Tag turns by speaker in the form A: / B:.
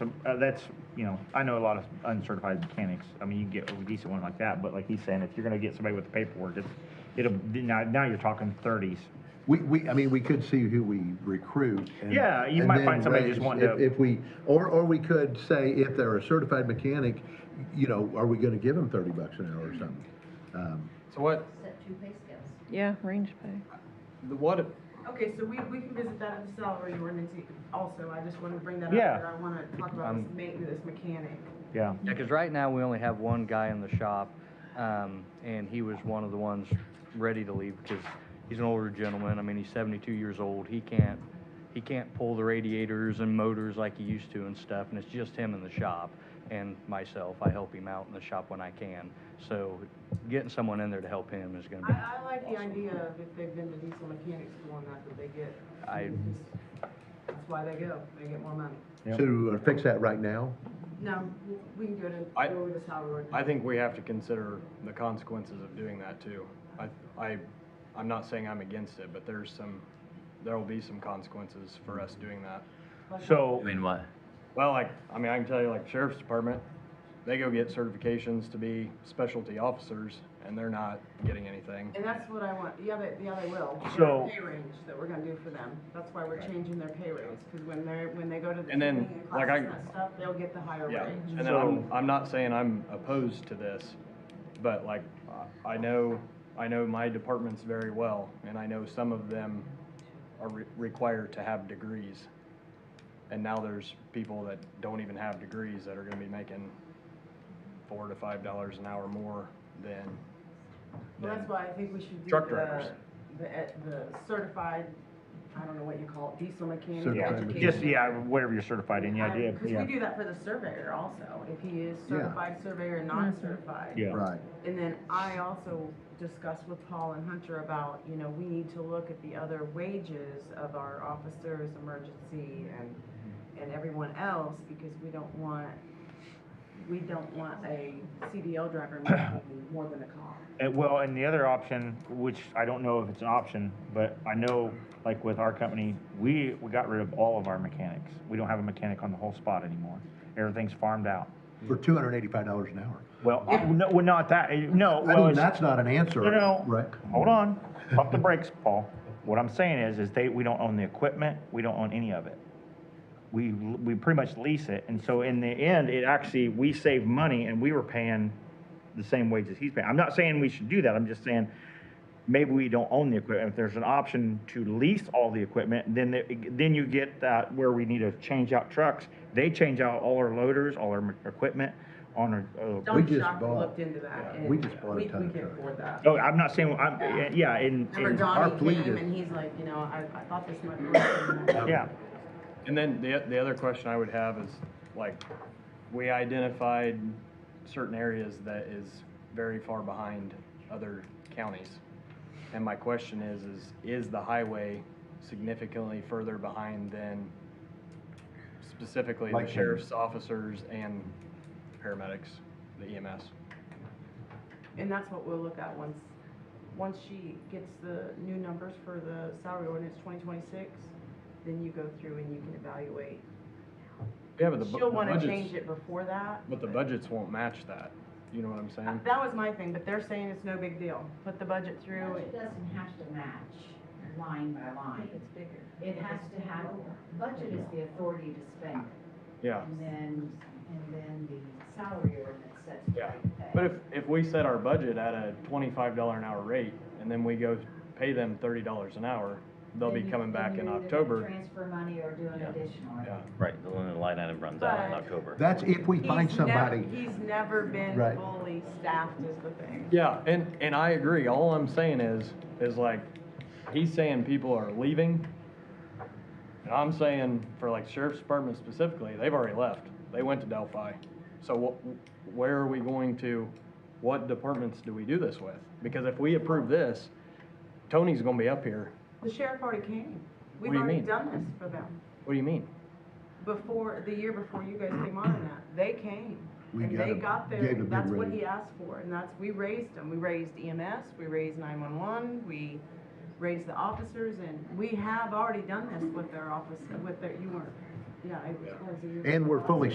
A: uh, that's, you know, I know a lot of uncertified mechanics, I mean, you can get a decent one like that, but like he's saying, if you're gonna get somebody with the paperwork, it's, it'll, now, now you're talking thirties.
B: We, we, I mean, we could see who we recruit. and-
A: Yeah, you
B: and
A: might
B: then
A: find somebody just
B: raise-
A: wanting
B: if-
A: to-
B: If we, or, or we could say if they're a certified mechanic, you know, are we gonna give them thirty bucks an hour or something? Um,
C: So what,
D: set two pay scales.
E: Yeah, range pay.
C: the what,
F: Okay, so we, we can visit that in the salary ordinance also, I just wanted to bring that up.
A: Yeah.
F: but I wanna talk about this
C: Um,
F: maintenance mechanic.
A: Yeah,
C: yeah, because right now we only have one guy in the shop, um, and he was one of the ones ready to leave because he's an older gentleman. I mean, he's seventy-two years old. He can't, he can't pull the radiators and motors like he used to and stuff, and it's just him in the shop and myself. I help him out in the shop when I can. So getting someone in there to help him is gonna be,
F: I, I like the idea of if they've been to diesel mechanic school and that, that they get.
C: I-
F: That's why they go, they get more money.
A: Yep.
B: So uh, fix that right now?
F: No, we can go to,
G: I-
F: go with the salary ordinance.
G: I think we have to consider the consequences of doing that too. I, I, I'm not saying I'm against it, but there's some, there will be some consequences for us doing that.
A: so,
H: I mean, what?
G: Well, like, I mean, I can tell you, like, sheriff's department, they go get certifications to be specialty officers, and they're not getting anything.
F: And that's what I want, yeah, they, yeah, they will. Their
A: So-
F: Pay range that we're gonna do for them, that's why we're changing their pay rates, cause when they're, when they go to the
G: And then,
F: training and
G: like
F: classes
G: I-
F: and that stuff, they'll get the higher
G: Yeah,
F: range.
G: and then I'm, I'm not saying I'm opposed to this, but like, I- I know, I know my departments very well, and I know some of them are re- required to have degrees. And now there's people that don't even have degrees that are gonna be making four to five dollars an hour more than,
F: Well, that's
G: than
F: why I think we should do
G: Truck
F: the,
G: drivers.
F: the, eh, the certified, I don't know what you call it, diesel mechanic
B: Certified
A: yeah,
F: education.
A: just, yeah, whatever you're certified in, yeah, yeah,
F: Because
A: yeah.
F: we do that for the surveyor also, if he is
B: Yeah.
F: certified surveyor and non-certified.
A: Yeah.
B: Right.
F: And then I also discussed with Paul and Hunter about, you know, we need to look at the other wages of our officers, emergency, and, and everyone else, because we don't want, we don't want a CDL driver making more than a cop.
A: And well, and the other option, which I don't know if it's an option, but I know, like with our company, we, we got rid of all of our mechanics. We don't have a mechanic on the whole spot anymore. Everything's farmed out.
B: For two hundred and eighty-five dollars an hour.
A: Well, I- no, well, not that, eh, no,
B: I
A: well,
B: mean,
A: it's,
B: that's not an answer,
A: no, no.
B: Rick.
A: Hold on, pump the brakes, Paul. What I'm saying is, is they, we don't own the equipment, we don't own any of it. We, we pretty much lease it, and so in the end, it actually, we save money and we were paying the same wages he's paying. I'm not saying we should do that, I'm just saying, maybe we don't own the equipment. If there's an option to lease all the equipment, then, it- then you get that where we need to change out trucks. They change out all our loaders, all our equipment on our, uh,
B: We
F: Don
B: just
F: Shocker
B: bought-
F: looked into that, and
B: we just bought a
F: we, we
B: ton of
F: can
B: trucks.
F: afford that.
A: Oh, I'm not saying, I'm, yeah, in,
F: Remember
A: in,
B: our
F: Donnie
B: fleet
F: came
B: is-
F: and he's like, you know, I, I thought this might work.
A: yeah,
G: And then the, the other question I would have is, like, we identified certain areas that is very far behind other counties. And my question is, is, is the highway significantly further behind than specifically
B: Like
G: the
B: Henry.
G: sheriff's officers and paramedics, the E EMS?
F: And that's what we'll look at once, once she gets the new numbers for the salary ordinance twenty twenty-six, then you go through and you can evaluate.
G: Yeah, but the bu-
F: She'll
G: the
F: wanna
G: budgets-
F: change it before that.
G: But the budgets won't match that, you know what I'm
F: Uh,
G: saying?
F: That was my thing, but they're saying it's no big deal, put the budget through.
D: It doesn't have to match line by line.
F: bigger.
D: It has to have, budget is the authority to spend it.
G: Yeah.
D: And then, and then the salary ordinance sets the
G: Yeah.
D: rate of pay.
G: But if, if we set our budget at a twenty-five dollar an hour rate, and then we go pay them thirty dollars an hour, they'll be
D: Then you-
G: coming
D: then
G: back in
D: you're either gonna
G: October.
D: Transfer money or do an
G: Yeah.
D: additional.
G: Yeah,
H: Right, the line- the line item runs out in
F: But-
H: October.
B: That's if we find
F: He's nev-
B: somebody.
F: He's never been
B: Right.
F: fully staffed is the thing.
G: yeah, and, and I agree, all I'm saying is, is like, he's saying people are leaving. And I'm saying, for like sheriff's department specifically, they've already left, they went to Delphi. So wh- where are we going to, what departments do we do this with? Because if we approve this, Tony's gonna be up here,
F: The sheriff already came.
G: What
F: We've
G: do you
F: already
G: mean?
F: done this for them.
G: what do you mean?
F: Before, the year before you guys came on and that, they came.
B: We
F: And
B: got
F: they
B: a-
F: got
B: gave
F: their,
B: a big
F: that's what
B: raise.
F: he asked for, and that's, we raised them. We raised EMS, we raised nine-one-one, we raised the officers, and we have already done this with their office, with their, you weren't, yeah, it was a year.
B: And we're fully